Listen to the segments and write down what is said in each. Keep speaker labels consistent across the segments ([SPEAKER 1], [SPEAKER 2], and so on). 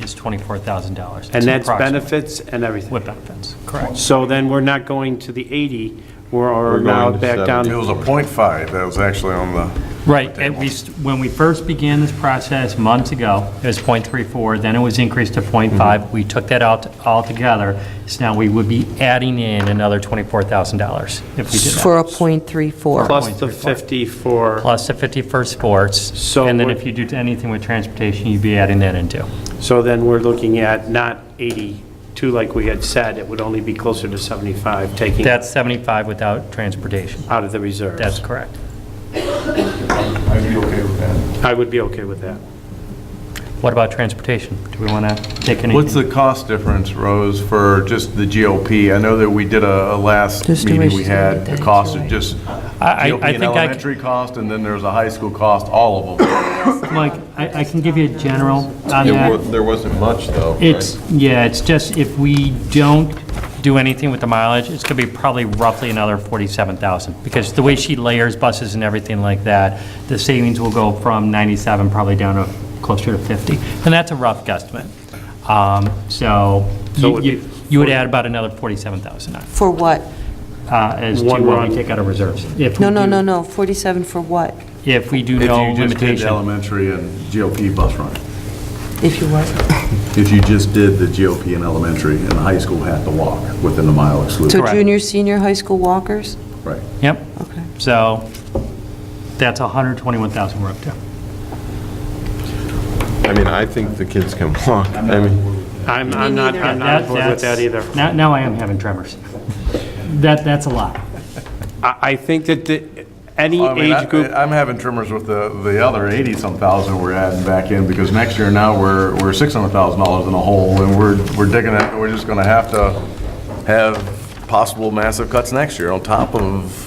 [SPEAKER 1] is $24,000.
[SPEAKER 2] And that's
[SPEAKER 1] Approximately.
[SPEAKER 2] benefits and everything.
[SPEAKER 1] With benefits, correct.
[SPEAKER 2] So then we're not going to the 80, we're
[SPEAKER 3] We're
[SPEAKER 2] now
[SPEAKER 3] going to
[SPEAKER 2] back
[SPEAKER 3] 70.
[SPEAKER 2] down.
[SPEAKER 4] It was a point five, that was actually on the,
[SPEAKER 1] Right, and we, st- when we first began this process months ago, it was .34, then it was increased to
[SPEAKER 2] Mm-hmm.
[SPEAKER 1] .5. We took that out altogether, so now we would be adding in another $24,000 if we did
[SPEAKER 5] For
[SPEAKER 1] that.
[SPEAKER 5] a point three four.
[SPEAKER 2] Plus the 50 for,
[SPEAKER 1] Plus the 50 for sports,
[SPEAKER 2] So
[SPEAKER 1] and then
[SPEAKER 2] we're-
[SPEAKER 1] if you do anything with transportation, you'd be adding that into.
[SPEAKER 2] so then we're looking at not 82 like we had said, it would only be closer to 75, taking
[SPEAKER 1] That's 75 without transportation.
[SPEAKER 2] out of the reserves.
[SPEAKER 1] That's correct.
[SPEAKER 4] I'd be okay with that.
[SPEAKER 2] I would be okay with that.
[SPEAKER 1] What about transportation? Do we want to take anything?
[SPEAKER 3] What's the cost difference, Rose, for just the GLP? I know that we did a, a last
[SPEAKER 5] Just do
[SPEAKER 3] meeting
[SPEAKER 5] it.
[SPEAKER 3] we had, the cost of just
[SPEAKER 1] I- I
[SPEAKER 3] GLP and
[SPEAKER 1] think I c-
[SPEAKER 3] elementary cost, and then there's a high school cost, all of them.
[SPEAKER 1] Mike, I, I can give you a general on
[SPEAKER 3] There wa-
[SPEAKER 1] that.
[SPEAKER 3] there wasn't much, though.
[SPEAKER 1] It's, yeah, it's just if we don't do anything with the mileage, it's gonna be probably roughly another forty-seven thousand. Because the way she layers buses and everything like that, the savings will go from ninety-seven probably down to closer to fifty. And that's a rough guesstimate. Um, so
[SPEAKER 2] So it
[SPEAKER 1] you,
[SPEAKER 2] would
[SPEAKER 1] you-
[SPEAKER 2] be-
[SPEAKER 1] you would add about another forty-seven thousand on,
[SPEAKER 5] For what?
[SPEAKER 1] uh, as to
[SPEAKER 2] One
[SPEAKER 1] what
[SPEAKER 2] run.
[SPEAKER 1] we take out of reserves. If we
[SPEAKER 5] No, no,
[SPEAKER 1] do-
[SPEAKER 5] no, no, forty-seven for what?
[SPEAKER 1] If we do
[SPEAKER 3] If
[SPEAKER 1] no
[SPEAKER 3] you just did the
[SPEAKER 1] limitation.
[SPEAKER 3] elementary and GLP bus run.
[SPEAKER 5] If you want.
[SPEAKER 3] If you just did the GLP in elementary, and the high school had to walk within the mile exclusion.
[SPEAKER 5] So
[SPEAKER 1] Correct.
[SPEAKER 5] junior, senior, high school walkers?
[SPEAKER 3] Right.
[SPEAKER 1] Yep.
[SPEAKER 5] Okay.
[SPEAKER 1] So that's hundred twenty-one thousand we're up to.
[SPEAKER 6] I mean, I think the kids can walk. I mean,
[SPEAKER 2] I'm, I'm not, I'm not on board with that
[SPEAKER 1] That's-
[SPEAKER 2] either.
[SPEAKER 1] Now, now I am having tremors. That, that's a lot.
[SPEAKER 2] I, I think that the, any
[SPEAKER 3] I mean, I-
[SPEAKER 2] age group,
[SPEAKER 3] I'm having tremors with the, the other 80-some thousand we're adding back in, because next year now, we're, we're $600,000 in a hole, and we're, we're digging it, we're just gonna have to have possible massive cuts next year on top of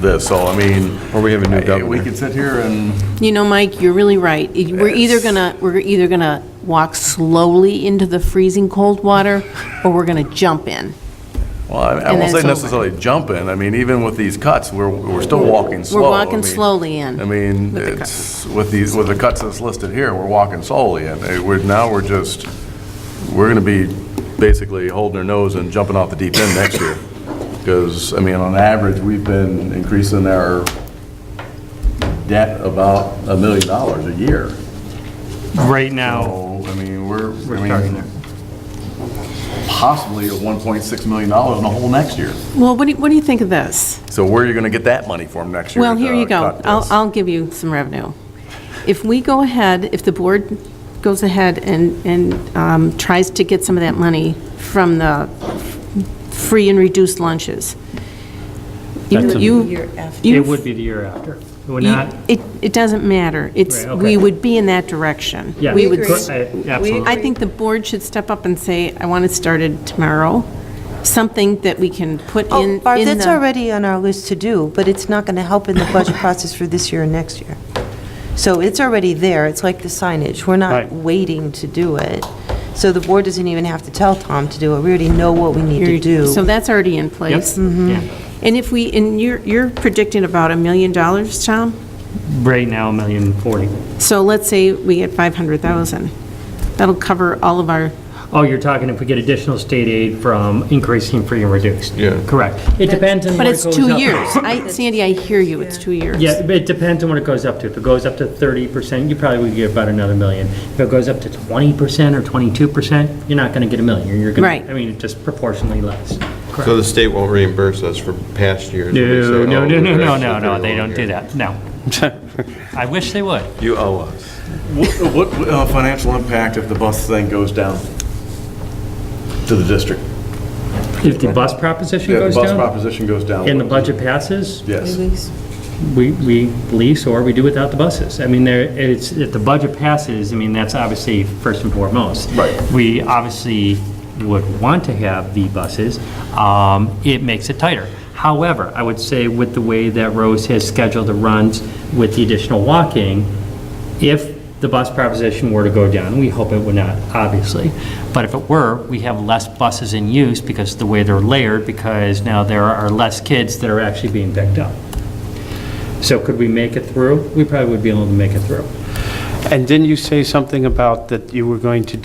[SPEAKER 3] this, so I mean.
[SPEAKER 6] Or we have a new
[SPEAKER 3] I- We
[SPEAKER 6] governor.
[SPEAKER 3] could sit here and,
[SPEAKER 7] You know, Mike, you're really right. It- We're either gonna, we're either gonna walk slowly into the freezing cold water, or we're gonna jump in.
[SPEAKER 3] well, I- I won't
[SPEAKER 7] And then
[SPEAKER 3] say
[SPEAKER 7] it's over.
[SPEAKER 3] necessarily jump in, I mean, even with these cuts, we're, we're still walking slow.
[SPEAKER 7] We're
[SPEAKER 3] I
[SPEAKER 7] walking
[SPEAKER 3] mean-
[SPEAKER 7] slowly in.
[SPEAKER 3] I mean,
[SPEAKER 7] with the
[SPEAKER 3] it's, with these, with the cuts that's listed here, we're walking solely in. Eh, We're, now we're just, we're gonna be basically holding our nose and jumping off the deep end next year. Because, I mean, on average, we've been increasing our debt about a million dollars a year.
[SPEAKER 1] Right now,
[SPEAKER 3] So, I mean, we're,
[SPEAKER 1] we're
[SPEAKER 3] I
[SPEAKER 1] starting
[SPEAKER 3] mean,
[SPEAKER 1] there.
[SPEAKER 3] possibly at one point six million dollars in the whole next year.
[SPEAKER 7] Well, what do, you- what do you think of this?
[SPEAKER 3] So where are you gonna get that money from next year?
[SPEAKER 7] Well,
[SPEAKER 3] to
[SPEAKER 7] here you go.
[SPEAKER 3] cut
[SPEAKER 7] Uh, I'll,
[SPEAKER 3] this?
[SPEAKER 7] I'll give you some revenue. If we go ahead, if the board goes ahead and, and um, tries to get some of that money from the free and reduced lunches,
[SPEAKER 1] That's a-
[SPEAKER 7] you, you.
[SPEAKER 5] Year after.
[SPEAKER 1] It
[SPEAKER 7] you've-
[SPEAKER 1] would be the year after. We're
[SPEAKER 7] You-
[SPEAKER 1] not,
[SPEAKER 7] It, it doesn't matter. It's,
[SPEAKER 1] Right, okay.
[SPEAKER 7] we would be in that direction.
[SPEAKER 1] yeah.
[SPEAKER 7] We would
[SPEAKER 1] cor- I-
[SPEAKER 7] I
[SPEAKER 1] Absolutely.
[SPEAKER 7] think the board should step up and say, I want it started tomorrow, something that we can put in,
[SPEAKER 5] Oh,
[SPEAKER 7] in
[SPEAKER 5] Barb, that's
[SPEAKER 7] the-
[SPEAKER 5] already on our list to do, but it's not going to help in the budget process for this year and next year. So it's already there, it's like the signage, we're not
[SPEAKER 2] Right.
[SPEAKER 5] waiting to do it. So the board doesn't even have to tell Tom to do it, we already know what we need to
[SPEAKER 7] So
[SPEAKER 5] do.
[SPEAKER 7] that's already in place. Mm-hmm.
[SPEAKER 1] Yeah.
[SPEAKER 7] And if we, and you're, you're predicting about a million dollars, Tom?
[SPEAKER 1] Right now, a million forty.
[SPEAKER 7] So let's say we get 500,000. That'll cover all of our,
[SPEAKER 1] Oh, you're talking if we get additional state aid from increasing free and reduced?
[SPEAKER 6] Yeah.
[SPEAKER 1] Correct. It depends on
[SPEAKER 7] but
[SPEAKER 1] what it
[SPEAKER 7] it's
[SPEAKER 1] goes up.
[SPEAKER 7] two years. I, Sandy, I hear you, it's two years.
[SPEAKER 1] Yeah, but it depends on what it goes up to. If it goes up to thirty percent, you probably would get about another million. If it goes up to twenty percent or twenty-two percent, you're not gonna get a million. You're gonna,
[SPEAKER 7] Right.
[SPEAKER 1] I mean, just proportionally less.
[SPEAKER 6] so the state won't reimburse us for past years. when they say,
[SPEAKER 1] No, no,
[SPEAKER 6] "Oh,
[SPEAKER 1] no, no,
[SPEAKER 6] we're
[SPEAKER 1] no,
[SPEAKER 6] actually
[SPEAKER 1] no, no,
[SPEAKER 6] pretty
[SPEAKER 1] they
[SPEAKER 6] low
[SPEAKER 1] don't do
[SPEAKER 6] here."
[SPEAKER 1] that, no. I wish they would.
[SPEAKER 6] You owe us.
[SPEAKER 3] What, what uh, financial impact if the bus thing goes down to the district?
[SPEAKER 1] If the bus proposition
[SPEAKER 3] Yeah, the
[SPEAKER 1] goes
[SPEAKER 3] bus
[SPEAKER 1] down
[SPEAKER 3] proposition goes down.
[SPEAKER 1] and the budget passes,
[SPEAKER 3] Yes.
[SPEAKER 1] we, we lease or we do without the buses. I mean, there, it's, if the budget passes, I mean, that's obviously first and foremost.
[SPEAKER 3] Right.
[SPEAKER 1] We obviously would want to have the buses. Um, It makes it tighter. However, I would say with the way that Rose has scheduled the runs with the additional walking, if the bus proposition were to go down, we hope it would not, obviously, but if it were, we have less buses in use because of the way they're layered, because now there are less kids that are actually being picked up. So could we make it through? We probably would be able to make it through.
[SPEAKER 2] and didn't you say something about that you were going to